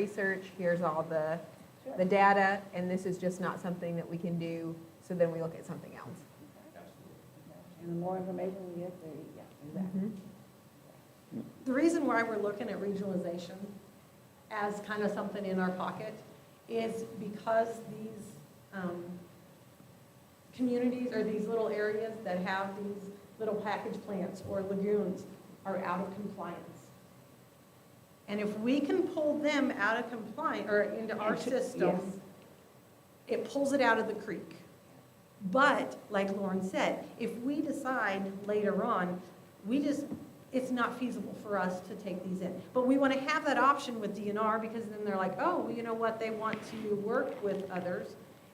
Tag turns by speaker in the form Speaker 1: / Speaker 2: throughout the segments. Speaker 1: research, here's all the, the data, and this is just not something that we can do, so then we look at something else.
Speaker 2: And the more information we get, the, yeah, exactly.
Speaker 3: The reason why we're looking at regionalization as kind of something in our pocket is because these um, communities or these little areas that have these little package plants or lagoons are out of compliance. And if we can pull them out of compliance, or into our
Speaker 2: Into- yes.
Speaker 3: system, it pulls it out of the creek. But, like Lauren said, if we decide later on, we just, it's not feasible for us to take these in. But we want to have that option with DNR, because then they're like, oh, well, you know what, they want to work with others.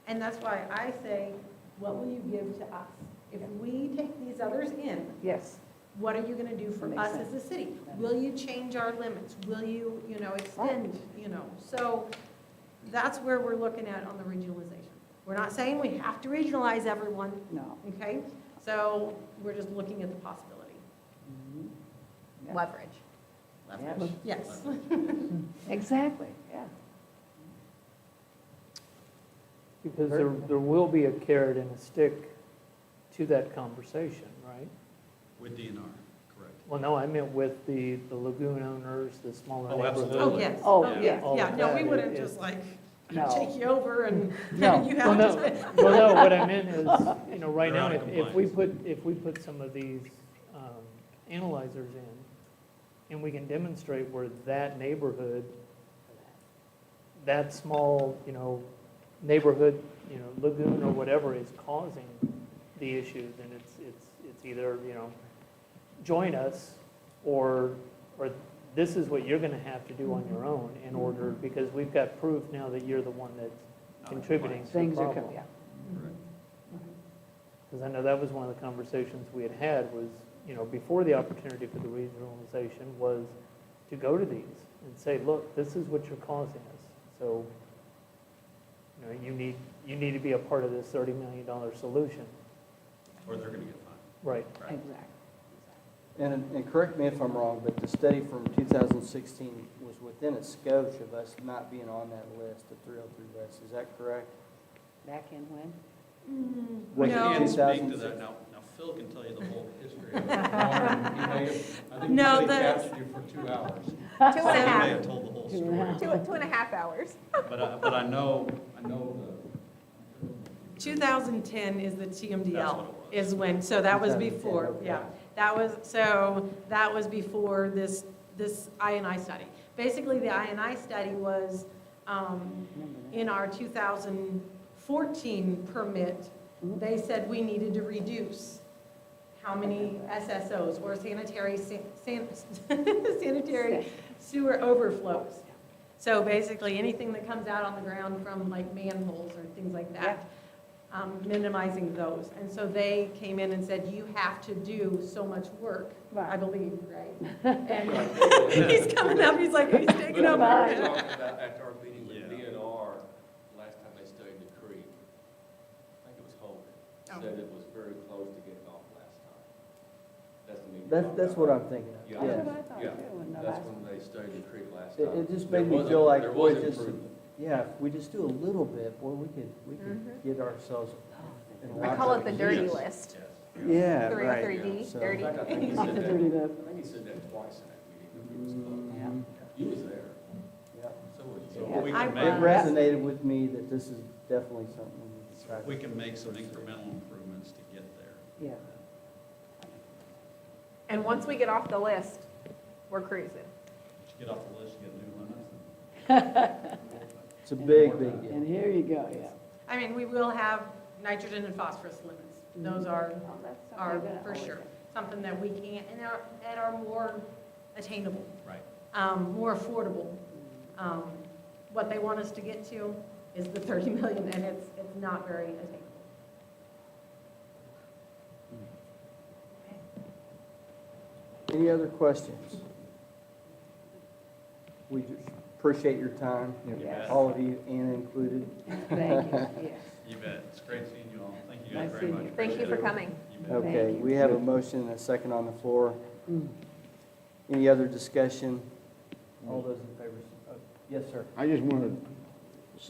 Speaker 3: And that's why I say, what will you give to us? If we take these others in,
Speaker 2: Yes,
Speaker 3: what are you going to do for
Speaker 2: Makes
Speaker 3: us
Speaker 2: sense.
Speaker 3: as a city? Will you change our limits? Will you, you know, extend, you know? So that's where we're looking at on the regionalization. We're not saying we have to regionalize everyone,
Speaker 2: no.
Speaker 3: okay? So we're just looking at the possibility.
Speaker 2: Mhm. Yeah.
Speaker 1: Leverage.
Speaker 2: Leverage.
Speaker 3: Yes.
Speaker 2: Exactly, yeah.
Speaker 4: Because there, there will be a carrot and a stick to that conversation, right?
Speaker 5: With DNR, correct.
Speaker 4: Well, no, I meant with the, the lagoon owners, the smaller
Speaker 5: Oh,
Speaker 4: neighborhoods.
Speaker 5: absolutely.
Speaker 3: Oh, yes.
Speaker 2: Oh,
Speaker 3: yeah.
Speaker 2: yeah.
Speaker 4: All
Speaker 3: Yeah,
Speaker 4: of
Speaker 3: no, we
Speaker 4: that
Speaker 3: wouldn't
Speaker 4: is-
Speaker 3: just like
Speaker 2: No.
Speaker 3: take you over and
Speaker 2: No.
Speaker 3: you
Speaker 4: Well,
Speaker 3: have
Speaker 4: no.
Speaker 3: to.
Speaker 4: Well, no, what I meant is, you know, right
Speaker 5: They're
Speaker 4: now,
Speaker 5: out
Speaker 4: if
Speaker 5: of
Speaker 4: if we put, if we put some of these um, analyzers in, and we can demonstrate where that neighborhood, that small, you know, neighborhood, you know, lagoon or whatever is causing the issue, then it's, it's, it's either, you know, join us, or, or this is what you're gonna have to do on your own in order, because we've got proof now that you're the one that's
Speaker 5: Not in
Speaker 4: contributing to the
Speaker 2: Things are,
Speaker 4: problem.
Speaker 2: co- yeah.
Speaker 5: Correct.
Speaker 4: Because I know that was one of the conversations we had had was, you know, before the opportunity for the regionalization was to go to these and say, look, this is what you're causing us. So, you know, you need, you need to be a part of this $30 million solution.
Speaker 5: Or they're going to get fined.
Speaker 4: Right.
Speaker 5: Right.
Speaker 2: Exactly.
Speaker 6: And, and correct me if I'm wrong, but the study from 2016 was within a scope of us not being on that list, the 303 list, is that correct?
Speaker 2: Back in when?
Speaker 3: Mm,
Speaker 6: Wait,
Speaker 3: no.
Speaker 5: We can't speak to
Speaker 6: 2006.
Speaker 5: that. Now, now Phil can tell you the whole history. of it. I think we
Speaker 3: No,
Speaker 5: really
Speaker 3: that's-
Speaker 5: captured you for two hours.
Speaker 1: Two
Speaker 5: So
Speaker 1: and
Speaker 5: he
Speaker 1: a
Speaker 5: may
Speaker 1: half,
Speaker 5: have told the whole
Speaker 2: Two and a
Speaker 5: story.
Speaker 2: half.
Speaker 1: two, two and a half hours.
Speaker 5: But I, but I know, I know the.
Speaker 3: 2010 is the
Speaker 5: That's what
Speaker 3: TMDL,
Speaker 5: it was.
Speaker 3: is when, so that was
Speaker 6: 2010,
Speaker 3: before,
Speaker 6: okay.
Speaker 3: yeah. That was, so that was before this, this INI study. Basically, the INI study was um,
Speaker 2: Remember that?
Speaker 3: in our 2014 permit,
Speaker 2: Mhm.
Speaker 3: they said we needed to reduce how many SSOs or sanitary, san- san- sanitary sewer overflows. So basically, anything that comes out on the ground from like manholes or things like that, um, minimizing those. And so they came in and said, you have to do so much work, I
Speaker 2: Right.
Speaker 3: believe, right? And he's coming up, he's like, he's taking
Speaker 7: But
Speaker 3: over.
Speaker 7: we were talking about after our meeting with
Speaker 5: Yeah.
Speaker 7: DNR, last time they studied the creek, I think it was
Speaker 3: Oh.
Speaker 7: Hogan, said it was very close to getting off last time. That's the meeting.
Speaker 6: That's, that's what I'm thinking of,
Speaker 7: Yeah.
Speaker 2: That's
Speaker 6: yes.
Speaker 2: what I thought
Speaker 7: Yeah.
Speaker 2: too, when the
Speaker 7: That's
Speaker 2: last.
Speaker 7: when they studied the creek last
Speaker 6: It-
Speaker 7: time.
Speaker 6: it just
Speaker 7: There
Speaker 6: made me
Speaker 7: was
Speaker 6: feel
Speaker 7: a-
Speaker 6: like
Speaker 7: There
Speaker 6: we're
Speaker 7: was
Speaker 6: just-
Speaker 7: improvement.
Speaker 6: Yeah, if we just do a little bit, boy, we could, we could
Speaker 1: Mhm.
Speaker 6: get ourselves. and
Speaker 1: I call it the oh
Speaker 6: watch
Speaker 1: dirty
Speaker 5: Yes.
Speaker 1: list.
Speaker 7: Yes.
Speaker 6: Yeah, right.
Speaker 1: 303D,
Speaker 6: So-
Speaker 7: In
Speaker 1: dirty.
Speaker 7: fact, I think he
Speaker 2: Off
Speaker 7: said
Speaker 2: the
Speaker 7: that,
Speaker 2: dirty bit.
Speaker 7: I think he said that twice in that meeting, that we was close.
Speaker 6: Mhm.
Speaker 7: You was there,
Speaker 6: Yeah.
Speaker 7: so was
Speaker 5: So
Speaker 7: you.
Speaker 5: what we
Speaker 3: I
Speaker 5: can
Speaker 6: It
Speaker 3: was-
Speaker 5: make,
Speaker 6: resonated with me that this is definitely something we need to try.
Speaker 5: we can make some incremental improvements to get there.
Speaker 2: Yeah.
Speaker 1: And once we get off the list, we're cruising.
Speaker 5: Just Get off the list, get new limits.
Speaker 6: It's a big, big deal.
Speaker 2: And here you go, yeah.
Speaker 3: I mean, we will have nitrogen and phosphorus limits. Those are,
Speaker 2: Oh, that's something
Speaker 3: are
Speaker 2: that I
Speaker 3: for
Speaker 2: always
Speaker 3: sure,
Speaker 2: have.
Speaker 3: something that we can, and are, and are more attainable,
Speaker 5: Right.
Speaker 3: um, more affordable. Um, What they want us to get to is the 30 million, and it's, it's not very attainable.
Speaker 6: Any other questions? We just appreciate your time,
Speaker 5: You
Speaker 2: Yes.
Speaker 5: bet.
Speaker 6: all of you, Anna included.
Speaker 2: Thank you, yes.
Speaker 5: You bet. It's great seeing you all. Thank you guys
Speaker 2: Nice
Speaker 5: very
Speaker 2: seeing
Speaker 5: much.
Speaker 2: you.
Speaker 1: Thank you for
Speaker 5: Appreciate it.
Speaker 1: coming.
Speaker 5: You bet.
Speaker 6: Okay,
Speaker 2: you.
Speaker 6: we have a motion and a second on the floor.
Speaker 2: Mm.
Speaker 6: Any other discussion? All those in favor, s-
Speaker 8: Yes, sir.
Speaker 6: I just want to